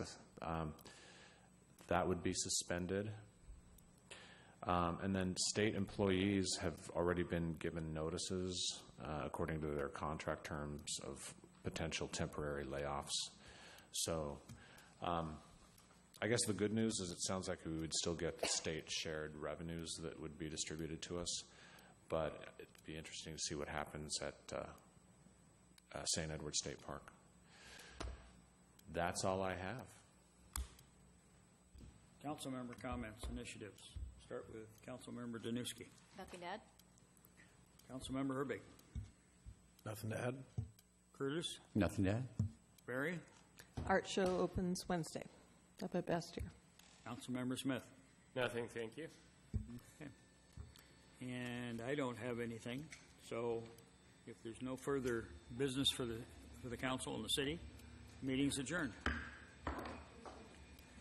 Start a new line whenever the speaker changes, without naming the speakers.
um, that would be suspended. Um, And then state employees have already been given notices uh, according to their contract terms of potential temporary layoffs. So um, I guess the good news is it sounds like we would still get the state shared revenues that would be distributed to us, but it'd be interesting to see what happens at uh, uh, St. Edward State Park. That's all I have.
Council member comments, initiatives. Start with Councilmember Danuski.
Nothing to add?
Councilmember Herbig.
Nothing to add?
Curtis.
Nothing to add?
Barry.
Art show opens Wednesday up at Bastyr.
Councilmember Smith.
Nothing, thank you.
And I don't have anything, so if there's no further business for the, for the council and the city, meeting's adjourned.